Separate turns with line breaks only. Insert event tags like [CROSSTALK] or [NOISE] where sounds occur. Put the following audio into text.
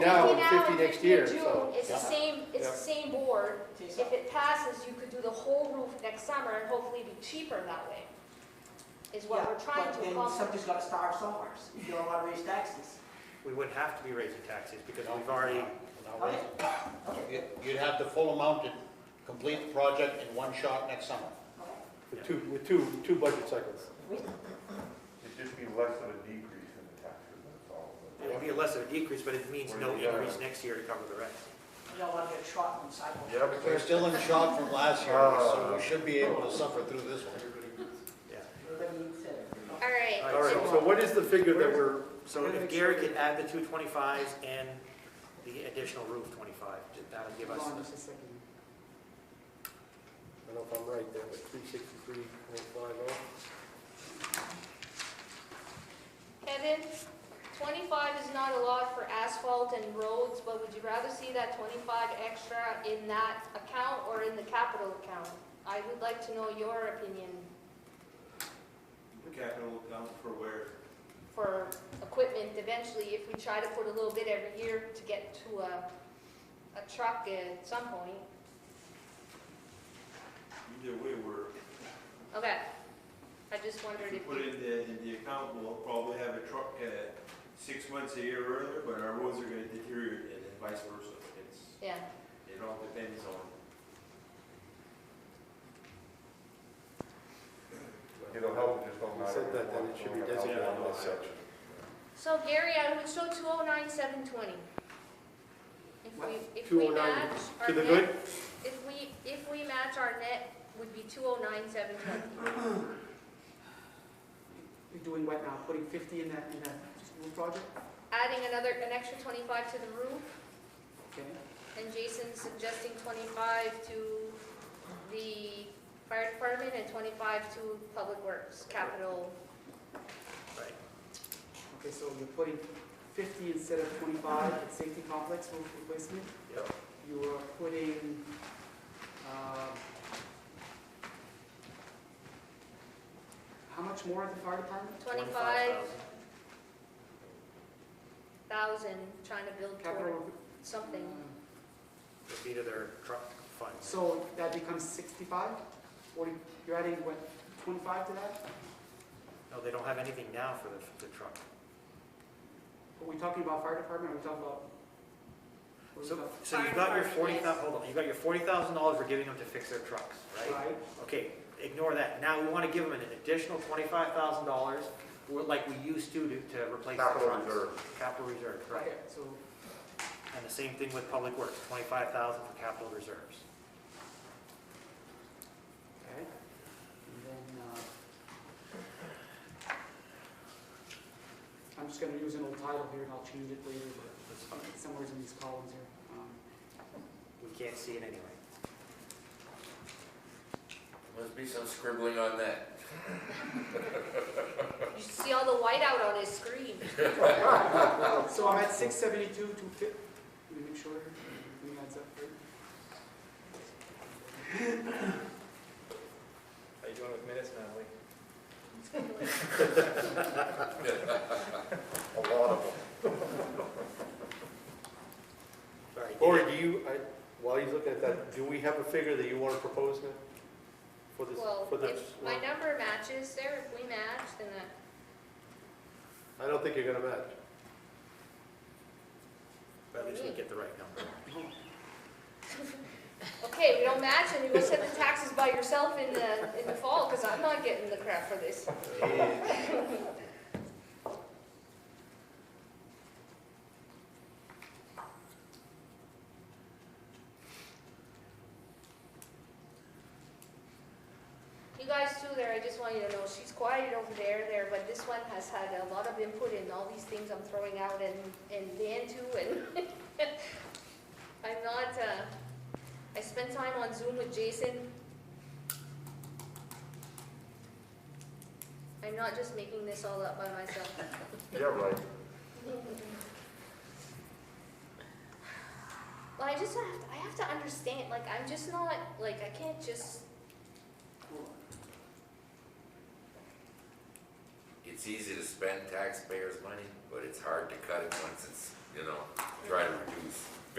now and
now
fifty next
in
year,
June,
so.
It's the same, it's
Yeah.
the same board. If it passes, you could do the whole roof next summer and hopefully be cheaper that way, is what
Yeah,
we're trying
but
to
Then
accomplish.
something's gotta start somewhere, if you don't wanna raise taxes.
We would have to be raising taxes because we've already,
Okay,
You- You'd have the full amount to complete the project in one shot next summer.
okay.
With two, with two, two budget cycles.
It'd just be less of a decrease in the taxes, that's all.
it would be less of a decrease, but it means no increase next year to cover the rest.
You don't wanna get shot on the sidewalk.
Yep.
We're still in shock from last year, so we should be able to suffer through this one.
Yeah.
Everybody needs to-
All right,
All right, so what is the figure that we're,
So if Gary could add the two twenty-fives and the additional roof twenty-five, that'll give us,
I don't know if I'm right there, but three sixty-three point five oh?
Kevin, twenty-five is not a lot for asphalt and roads, but would you rather see that twenty-five extra in that account or in the capital account? I would like to know your opinion
The capital account for where?
for equipment eventually, if we try to put a little bit every year to get to a, a truck at some point.
Either way, we're,
Okay, I just
if
wondered
we
if
put
you,
it in the, in the account, we'll probably have a truck, uh, six months a year earlier, but our roads are gonna deteriorate and then vice versa. It's,
yeah,
it all depends on.
It'll help, it just don't matter.
Said that, then it should be designated as such.
so Gary, I would show two oh nine, seven twenty. If we, if we
209
match our
To the
net,
good?
if we, if we match our net would be two oh nine, seven twenty.
You're doing what now, putting fifty in that, in that school project?
Adding another, an extra twenty-five to the roof,
Okay.
and Jason suggesting twenty-five to the fire department and twenty-five to public works, capital.
right,
Okay, so you're putting fifty instead of twenty-five at safety complex roof replacement?
Yep.
You are putting, um, how much more at the fire department?
Twenty-five
25,000.
thousand, trying to build toward
Capital,
something.
uh,
would be to their truck funds.
so that becomes sixty-five? Forty, you're adding what, twenty-five to that?
No, they don't have anything now for the, the truck.
Are we talking about fire department, or are we talking about? what are we
So,
talking-
so you got your forty thousand. hold on, you got your forty thousand dollars we're giving them to fix their trucks, right?
Right,
Okay, ignore that. Now we want to give them an additional twenty-five thousand dollars, like we used to, to to replace the trucks.
Capital reserve.
Capital reserve, right.
okay, so,
And the same thing with public works, twenty-five thousand for capital reserves.
okay. And then, uh, I'm just gonna use an old title here and I'll change it later, but.
That's fine.
somewhere in these columns here. Um,
We can't see it anyway.
Must be some scribbling on that.
You should see all the white out on his screen.
So I'm at six seventy-two, two fif, let me make sure, here. everything adds up here.
How you doing with minutes, Natalie?
A lot of them.
Sorry.
Or do you, I, while he's looking at that, do we have a figure that you want to propose now? For this,
Well,
for this?
if my
one?
number matches there, if we match, then that,
I don't think you're gonna match.
But at least we get the right number.
okay, we don't match, and you go set the taxes by yourself in the, in the fall, because I'm not getting the crap for this. [LAUGHS] You guys too there, I just want you to know, she's quiet over there, there, but this one has had a lot of input in all these things I'm throwing out and, and Dan too, and [LAUGHS] I'm not, uh, I spent time on Zoom with Jason. I'm not just making this all up by myself.
Yeah, right.
Well, I just have, to- I have to understand, like, I'm just not, like, I can't just,
Cool.
It's
it's easy to spend taxpayers' money, but it's hard to cut it once it's, you know, try to